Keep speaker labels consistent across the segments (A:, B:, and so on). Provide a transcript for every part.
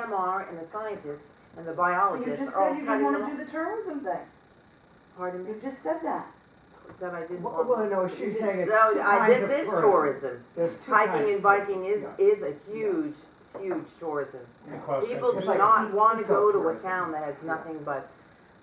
A: EMR and the scientists and the
B: But You
A: biologists
B: just
A: are all
B: said you didn't
A: cutting them
B: wanna do
A: off. Mm-hmm.
B: the tourism thing.
A: Pardon me,
B: You just said that.
A: that I didn't
C: Well,
A: want.
C: well, no, she's saying it's
A: No,
C: two
A: I-
C: kinds of tourism.
A: This is tourism.
C: There's two kinds.
A: Hiking and biking is,
C: Yeah.
A: is a huge, huge tourism.
D: Because they
A: People
D: can-
C: It's
A: do
C: like
A: not
C: eco-
A: want to go to a
C: e- eco-tourism.
A: town that has nothing but,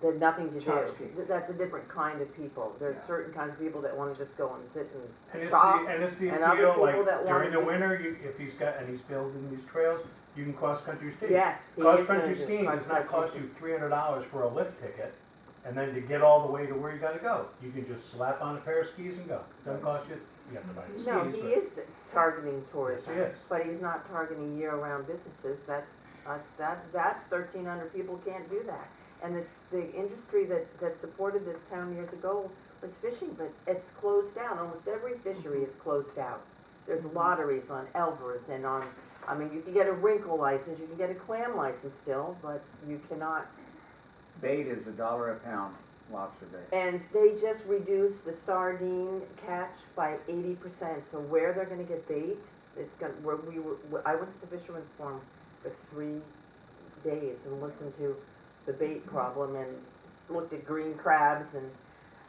A: that nothing to do.
C: Charge fees.
A: Th- That's a different kind of people. There's
C: Yeah.
A: certain kinds of people that want to just go and sit
D: And
A: and
D: it's
A: shop.
D: the, and it's the
A: and other
D: appeal, like
A: people that
D: during
A: want
D: the
A: to-
D: winter, you, if he's got, and he's building these trails, you can cross-country ski.
A: Yes. he is gonna
D: Cross-country
A: do
D: skiing does not
A: cross-country
D: cost
A: skiing.
D: you three hundred dollars for a lift ticket, and then to get all the way to where you gotta go, you can just slap on a pair of skis and go. Doesn't cost you, you have to buy the skis,
A: No,
D: but.
A: he is targeting tourism.
D: Yes, he is.
A: But he's not targeting year-round businesses, that's, uh, that, that's thirteen hundred people can't do that. And the, the industry that, that supported this town years ago was fishing, but it's closed down, almost every fishery is closed out. There's
D: Mm-hmm.
A: lotteries on Elvers and on, I mean, you can get a wrinkle license, you can get a clam license still, but you cannot
E: Bait is a dollar a pound, lobster bait.
A: And they just reduced the sardine catch by eighty percent, so where they're gonna get bait, it's gonna, where we were, where- I went to the fisherman's farm for three days and listened to the bait problem and looked at green crabs and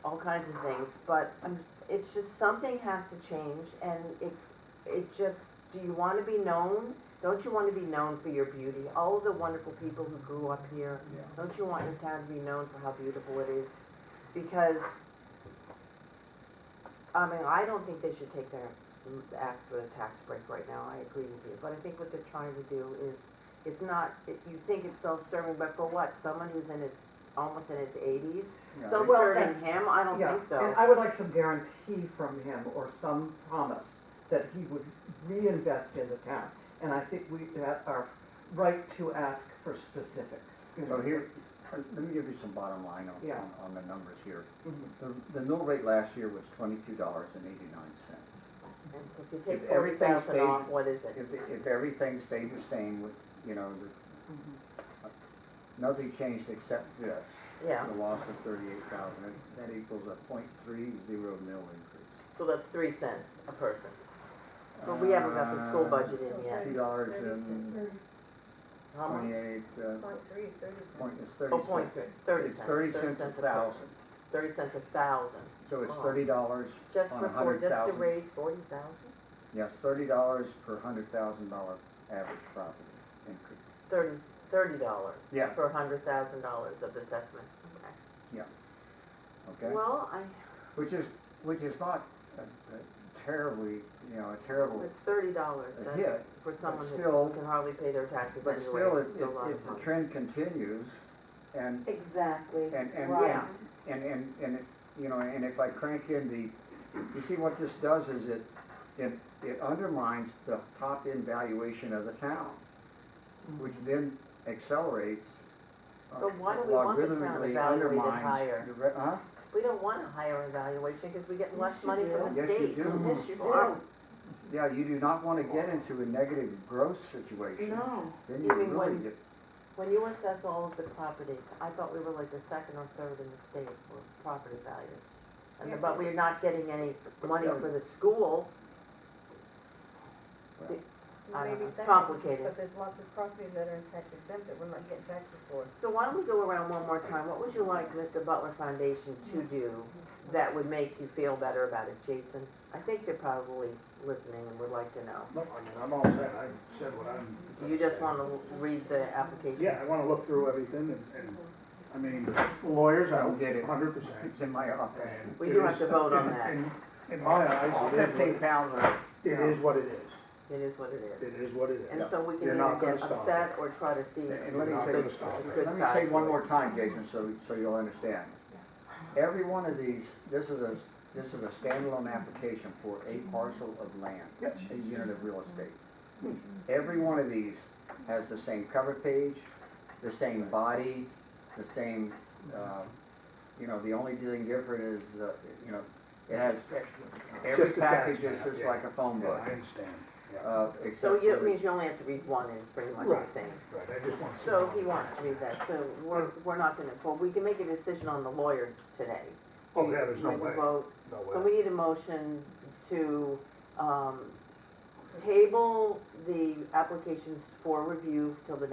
A: all kinds of things, but um, it's just, something has to change, and it, it just, do you wanna be known? Don't you wanna be known for your beauty? All of the wonderful people who grew up here
C: Yeah.
A: don't you want your town to be known for how beautiful it is? Because, I mean, I don't think they should take their acts with a tax break right now, I agree with you. But I think what they're trying to do is, it's not, it- you think it's self-serving, but for what? Someone who's in his, almost in his eighties?
E: You know, they-
C: Well,
A: Self-serving him? I don't
C: Yeah,
A: think so.
C: And I would like some guarantee from him or some promise that he would reinvest in the town. And I think we have our right to ask for specifics. you know.
E: So here, let me give you some bottom line on,
C: Yeah.
E: on- on the numbers here.
C: Mhm.
E: The, the mill rate last year was twenty-two dollars and eighty-nine cents.
A: And so if you take
E: If
A: forty
E: everything
A: thousand
E: stayed-
A: off, what is it?
E: If, if everything stayed the same with, you know, the-
C: Mm-hmm.
E: nothing changed except this,
A: Yeah,
E: the loss of thirty-eight thousand, that equals a point three zero mill increase.
A: so that's three cents a person. But we haven't got the school
E: Uh,
A: budget in yet.
E: Two dollars and
A: How much?
E: twenty-eight, uh, point, it's thirty
A: Oh,
E: cents.
A: point three, thirty
E: It's
A: cents.
E: thirty cents a thousand,
A: Thirty cents a thousand.
E: so it's
A: Wow.
E: thirty dollars
A: Just
E: on
A: for
E: a
A: four,
E: hundred
A: just to
E: thousand.
A: raise forty thousand?
E: Yes, thirty dollars per hundred thousand dollar average property increase.
A: Thirty, thirty dollars
E: Yeah,
A: for a hundred thousand dollars of assessment. Okay.
E: okay,
A: Well, I,
E: which is, which is not a- a terribly, you know, a terrible
A: it's thirty dollars,
E: uh,
A: that's
E: hit,
A: for someone
E: still-
A: who can hardly pay their taxes
E: but
A: anyway,
E: still, if,
A: it's still a lot of
E: if if the
A: money.
E: trend continues, and,
B: Exactly.
E: and, and,
B: Right.
E: and, and, and, it- you know, and if I crank in the, you see, what this does is it, it, it undermines the top-end valuation of the town, which then accelerates. uh,
A: But why do we want the town
E: logarithmically
A: evaluated
E: undermines
A: higher?
E: the re- Huh?
A: We don't want a higher evaluation because we get less
B: Yes, you
A: money
B: do.
A: from the
E: Yes, you
A: state.
E: do.
B: Yes, you
A: Wow.
B: do.
E: Yeah, you do not want to get into a negative growth situation.
B: No.
E: Then
A: You
E: you
A: mean
E: really
A: when-
E: get,
A: When you assess all of the properties, I thought we were like the second or third in the state for property values.
B: Yeah.
A: And, but we're not getting any money for the school. I don't know, it's complicated.
F: But there's lots of properties that are in tax exempt that we're not getting taxes for.
A: So why don't we go around one more time? What would you like the- the Butler Foundation to do that would make you feel better about it, Jason? I think they're probably listening and would like to know.
G: No, I mean, I'm all set, I said what I'm.
A: You just want to read the application?
G: Yeah, I wanna look through everything and, and, I mean, lawyers, I
E: Get it.
G: hundred percent.
E: it's in my office.
A: We do have to vote on that.
G: In my eyes, it is
E: Fifteen
G: what,
E: pounds of,
G: it is what it is,
A: It is what it is.
G: it is what it
A: And
G: is.
A: so we can
G: You're not
A: either
G: gonna
A: get
G: stop
A: upset or try to see.
E: And
G: We're
E: let me
G: not
E: say-
G: gonna stop it.
A: Good
E: let me
A: side
E: say
A: to
E: one
A: it.
E: more time, Jason, so, so you'll understand. Every one of these, this is a, this is a standalone application for a parcel of land,
G: Yes.
E: a unit of real estate.
G: Hmm.
E: Every one of these has the same cover page, the same body, the same,
G: Hmm.
E: uh, you know, the only thing different is, uh, you know, it has, every
G: Just the tax
E: package is
G: map,
E: just
G: yeah.
E: like a phone
G: Yeah,
E: book,
G: I understand, yeah,
E: uh,
A: So
E: except
A: you- it
E: for
A: means
E: the,
A: you only have to read one, is pretty much
G: Right.
A: the same.
G: right, I just want to.
A: So he wants to read that, so we're, we're not gonna, well, we can make a decision on the lawyer today.
G: Oh, yeah, there's no
A: We can
G: way,
A: vote
G: no
A: So
G: way.
A: we need a motion to, um, table the applications for review till the